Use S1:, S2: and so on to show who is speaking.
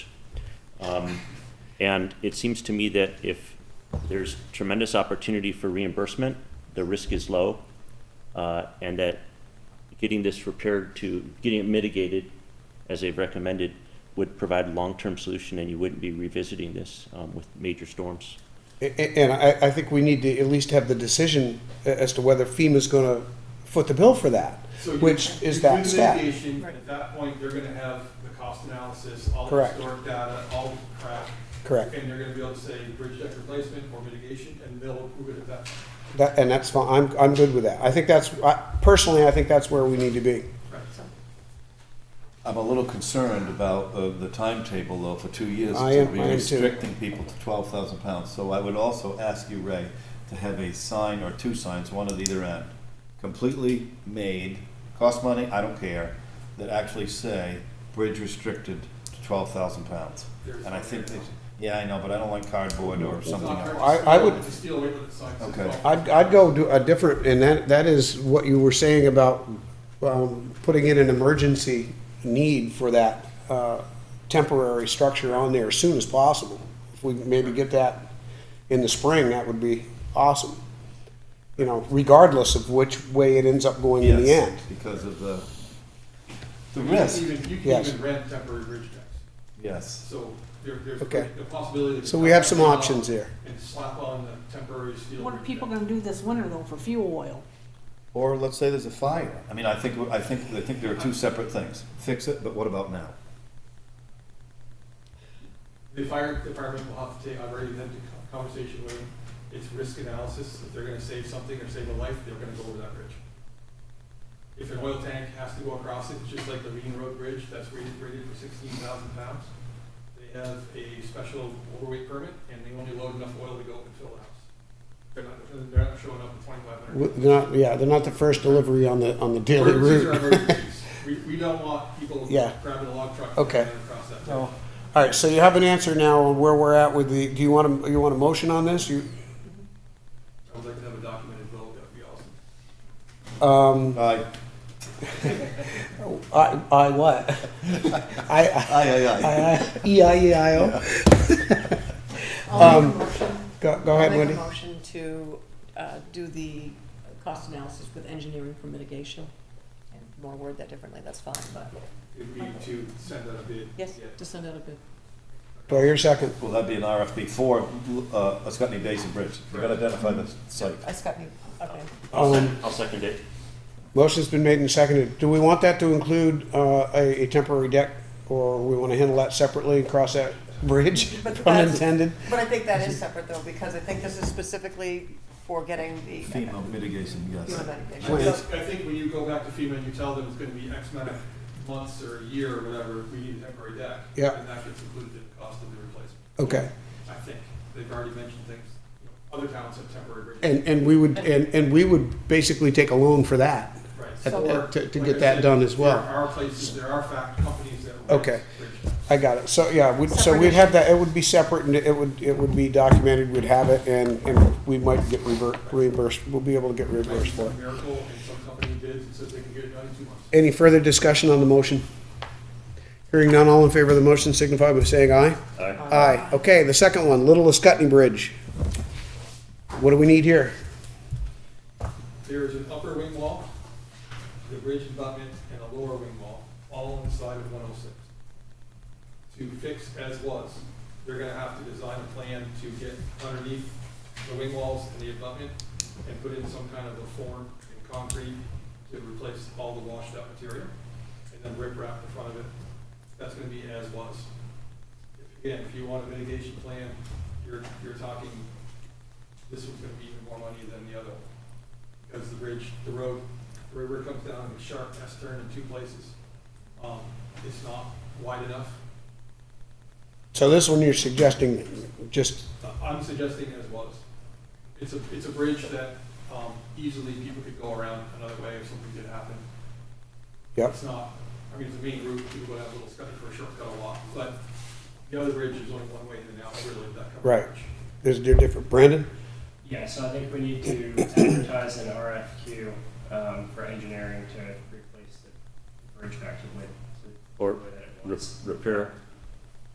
S1: Um, And it seems to me that if there's tremendous opportunity for reimbursement, the risk is low, uh, and that getting this repaired to, getting it mitigated, as they've recommended, would provide a long-term solution, and you wouldn't be revisiting this um, with major storms.
S2: A- a- And I, I think we need to at least have the decision a- as to whether FEMA's gonna foot the bill for that,
S3: So you-
S2: which
S3: you
S2: is
S3: do
S2: that
S3: the
S2: step.
S3: mitigation, At that point, they're gonna have the cost analysis, all the
S2: Correct.
S3: historic data, all the crap.
S2: Correct.
S3: And they're gonna be able to say bridge deck replacement or mitigation, and they'll approve it at that. point.
S2: That, and that's fine, I'm, I'm good with that. I think that's, I, personally, I think that's where we need to be.
S4: I'm a little concerned about uh, the timetable, though, for two years.
S2: I am- I
S4: To be
S2: am too.
S4: restricting people to 12,000 pounds. So I would also ask you, Ray, to have a sign or two signs, one at either end, completely made, cost money, I don't care, that actually say, bridge restricted to 12,000 pounds.
S3: There's
S4: And I
S3: one
S4: think,
S3: right
S4: that-
S3: now.
S4: yeah, I know, but I don't like cardboard or
S3: It's
S4: something
S3: not hard
S4: else.
S3: to
S2: I-
S3: steal-
S2: I would-
S3: to Steal away with the signs.
S4: Okay.
S2: I'd, I'd go do a different, and that, that is what you were saying about, um, putting in an emergency need for that, uh, temporary structure on there as soon as possible. If we maybe get that in the spring, that would be awesome. You know, regardless of which way it ends up going in the
S4: Yes,
S2: end.
S4: Because of the, the
S3: You can
S4: risk,
S3: even, you can
S2: Yes.
S3: even rent temporary bridge decks,
S4: yes.
S3: so there, there's
S2: Okay.
S3: the possibility. that
S2: So
S3: you
S2: we
S3: cut
S2: have some
S3: that out
S2: options there.
S3: And slap on the temporary steel.
S5: What are
S3: bridge
S5: people
S3: deck.
S5: gonna do this winter though for fuel oil?
S4: Or let's say there's a fire. I mean, I think, I think, I think there are two separate things. Fix it, but what about now?
S3: The fire department will have to take, I've already had a conversation with them, it's risk analysis, if they're gonna save something or save a life, they're gonna go over that bridge. If an oil tank has to go across it, just like the Reading Road Bridge, that's rated, rated for sixteen thousand pounds, they have a special overweight permit, and they only load enough oil to go and fill the house. They're not, they're not showing up with twenty-five hundred.
S2: W- They're not, yeah, they're not the first delivery on the, on the daily
S3: Emergencies are
S2: route.
S3: emergencies. We, we don't want people
S2: Yeah.
S3: grabbing a log truck and
S2: Okay.
S3: going across that bridge.
S2: So, All right, so you have an answer now on where we're at with the, do you want to, you want a motion on this? You,
S3: I would like to have a documented vote, that'd be awesome.
S2: um,
S4: Aye.
S2: I, I what? I,
S4: Aye, aye,
S2: I,
S4: aye.
S2: I, E I E I O.
S6: I'll make a motion.
S2: Go, Um, go
S6: I'll
S2: ahead,
S6: make a
S2: Wendy.
S6: motion to uh, do the cost analysis with engineering for mitigation. And if you want to word that differently, that's fine, but
S3: It'd be to send out a bid.
S6: yes,
S3: Yeah.
S6: to send out a bid.
S2: Do I hear a second?
S4: Well, that'd be an RFP for, uh, Ascutney Basin Bridge. We've got to identify the site.
S6: I just got me, okay.
S1: I'll
S2: Um,
S1: sec- I'll second it.
S2: Motion's been made and seconded. Do we want that to include, uh, a, a temporary deck? Or we want to handle that separately and cross that bridge,
S6: But that's-
S2: unintended?
S6: But I think that is separate though, because I think this is specifically for getting the.
S4: FEMA mitigation, yes.
S6: FEMA mitigation.
S3: I
S2: Well,
S3: think- I think when you go back to FEMA and you tell them it's gonna be X amount of months or a year or whatever, we need a temporary deck.
S2: Yeah. Oh.
S3: And that gets included in the cost of the replacement,
S2: Okay.
S3: I think. They've already mentioned things, you know, other towns have temporary bridges.
S2: And, and we would, and, and we would basically take a loan for that.
S3: Right.
S2: at-
S3: Or,
S2: at- to- to
S3: like
S2: get
S3: I
S2: that
S3: said,
S2: done as well.
S3: There are places, there are fact companies that. rent
S2: Okay.
S3: bridges.
S2: I got it. So, yeah, we'd, so
S6: Separate
S2: we'd have that, it would be separate and it would, it would be documented, we'd have it and, and we might get revert, reimbursed, we'll be able to get
S3: Might be
S2: reimbursed for it.
S3: some miracle and some company bids and says they can get it done in two months.
S2: Any further discussion on the motion? Hearing none, all in favor of the motion signify by saying aye.
S1: Aye.
S2: Aye. Okay, the second one, Little Escutney Bridge. What do we need here?
S3: There is an upper wing wall, the bridge abutment, and a lower wing wall, all on the side of one oh six. To fix as was, they're gonna have to design a plan to get underneath the wing walls and the abutment and put in some kind of a form in concrete to replace all the washed out material, and then rip wrap the front of it. That's gonna be as was. If- Again, if you want a mitigation plan, you're, you're talking, this one's gonna be even more money than the other one because the bridge, the road, the river comes down in a sharp S turn in two places. Um, it's not wide enough.
S2: So this one you're suggesting, just,
S3: Uh, I'm suggesting as was. It's a, it's a bridge that, um, easily people could go around another way if something did happen.
S2: yep,
S3: It's not, I mean, it's a main route, people go have a little scuttle for a shortcut a lot, but the other bridge is only one way in and out, really, that kind of
S2: Right.
S3: bridge.
S2: there's, they're different. Brandon?
S7: Yeah, so I think we need to advertise an RFQ um, for engineering to replace the bridge back to the way, to
S1: Or
S7: the way that it
S1: Re-
S7: was.
S1: Repair